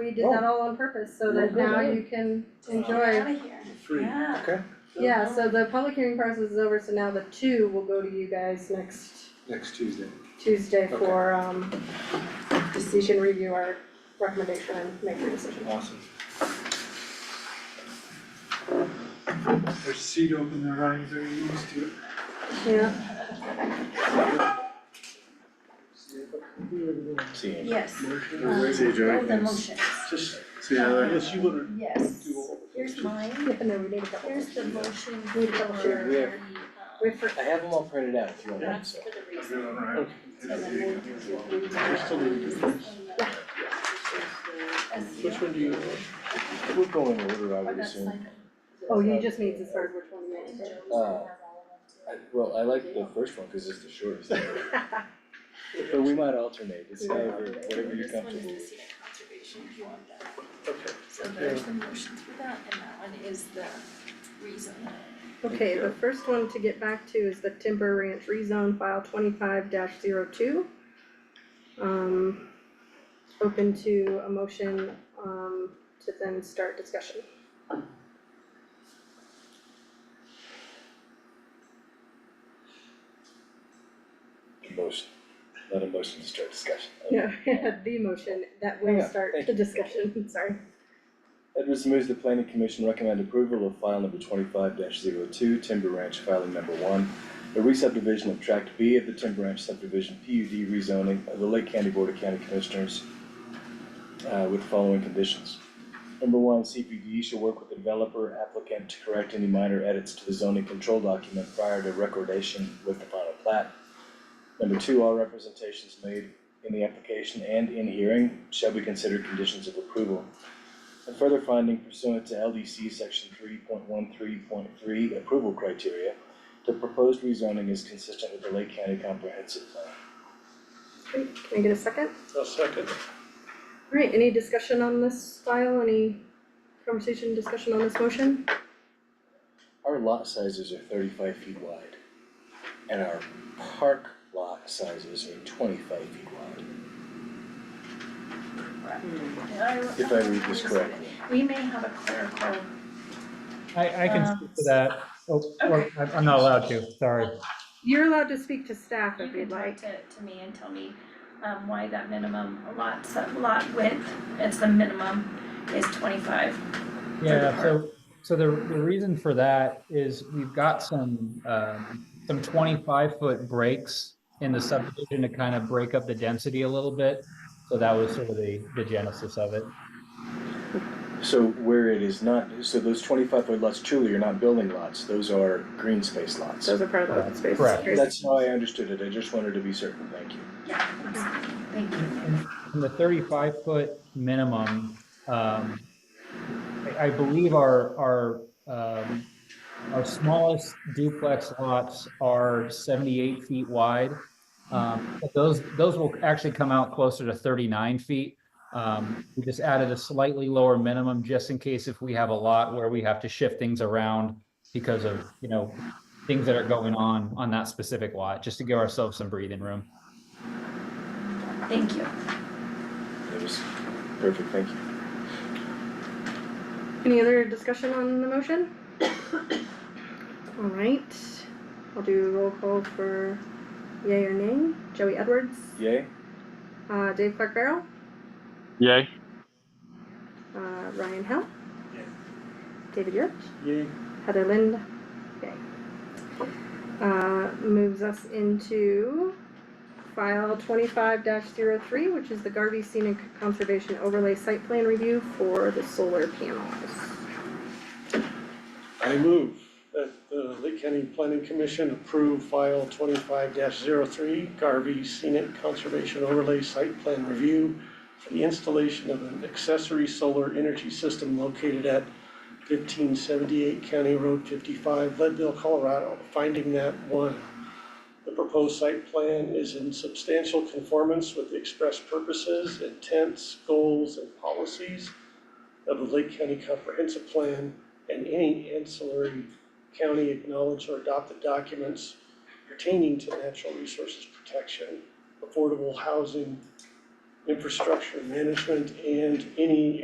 we did that all on purpose, so that Well, good. now you can Get out enjoy. of here. Free. Yeah. Yeah, so the public hearing process is over, so now the two will go to you guys next next Tuesday. Tuesday Okay. for, um, just so you can review our recommendation and make your decision. Awesome. There's a seat open there, Ryan, very used to it. Yeah, See you. Yes. Motion. See you, Joey. All the motions, Just, see how that is. You wanna yes. do all Here's mine, yeah, no, we need a couple. here's the motion for We the, have- um, we have- We're for, I have them all printed out if you want them, that's so. for the I'll do reason. it on our own. So then we'll do the- um, That's- Which one do you? We're going in order, I Or would that's assume. like- oh, you just need to start which one you made. Uh, I, well, I like the first one because it's the shortest. But we might alternate, it's however, whatever you're This one is comfortable the with. scenic conservation, if you want that. Okay. So there's the motion for that, and that one is the reason. Okay, the first one to get back to is the Timber Ranch rezone file twenty-five 2 Um, open to a motion, um, to then start discussion. Motion, not a motion to start discussion. Yeah, the motion that Hang will on, start thank the discussion, sorry. Edwards moves the planning commission recommend approval of file number twenty-five 2 Timber Ranch filing number one. The re-subdivision of tract B of the Timber Ranch subdivision PUD rezoning of the Lake County Board of County Commissioners uh, with the following conditions. Number one, CPD shall work with the developer applicant to correct any minor edits to the zoning control document prior to recordation with the final plat. Number two, all representations made in the application and in hearing shall be considered conditions of approval. And further finding pursuant to LDC section three point one three point three approval criteria, the proposed rezoning is consistent with the Lake County Comprehensive Plan. Great, can I get a second? I'll second. Alright, any discussion on this file, any conversation, discussion on this motion? Our lot sizes are thirty-five feet wide, and our park lot sizes are twenty-five feet wide, if I read this correctly. We may have a clerical, I, I can speak to that, oh, or, okay. I'm I'm not allowed to, sorry. You're allowed to speak to staff you if can you'd talk like. to, to me and tell me, um, why that minimum lot, so- lot width, it's the minimum, is twenty-five. Yeah, so, so the, the reason for that is we've got some, um, some twenty-five foot breaks in the subdivision to kind of break up the density a little bit. So that was sort of the, the genesis of it. So where it is not, so those twenty-five foot lots truly are not building lots, those are green space lots. Those are part of the open space. Correct. That's how I understood it, I just wanted to be certain, thank you. Yeah, absolutely. thank you. And the thirty-five foot minimum, um, I, I believe our, our, um, our smallest duplex lots are seventy-eight feet wide. Um, but those, those will actually come out closer to thirty-nine feet. Um, we just added a slightly lower minimum just in case if we have a lot where we have to shift things around because of, you know, things that are going on on that specific lot, just to give ourselves some breathing room. Thank you. It was perfect, thank you. Any other discussion on the motion? Alright, I'll do roll call for yay or nay. Joey Edwards, Yay? uh, Dave Clark Barrow, Yay. uh, Ryan Hill. Yay. David Yurt, Yay. Heather Lind, yay. Uh, moves us into file twenty-five 3 which is the Garvey Scenic Conservation Overlay Site Plan Review for the solar panels. I move that the Lake County Planning Commission approve file twenty-five 3 Garvey Scenic Conservation Overlay Site Plan Review for the installation of an accessory solar energy system located at fifteen seventy-eight County Road fifty-five, Leadville, Colorado, finding that one, the proposed site plan is in substantial conformance with the express purposes, intents, goals, and policies of the Lake County Comprehensive Plan and any ancillary county acknowledged or adopted documents pertaining to natural resources protection, affordable housing, infrastructure management, and any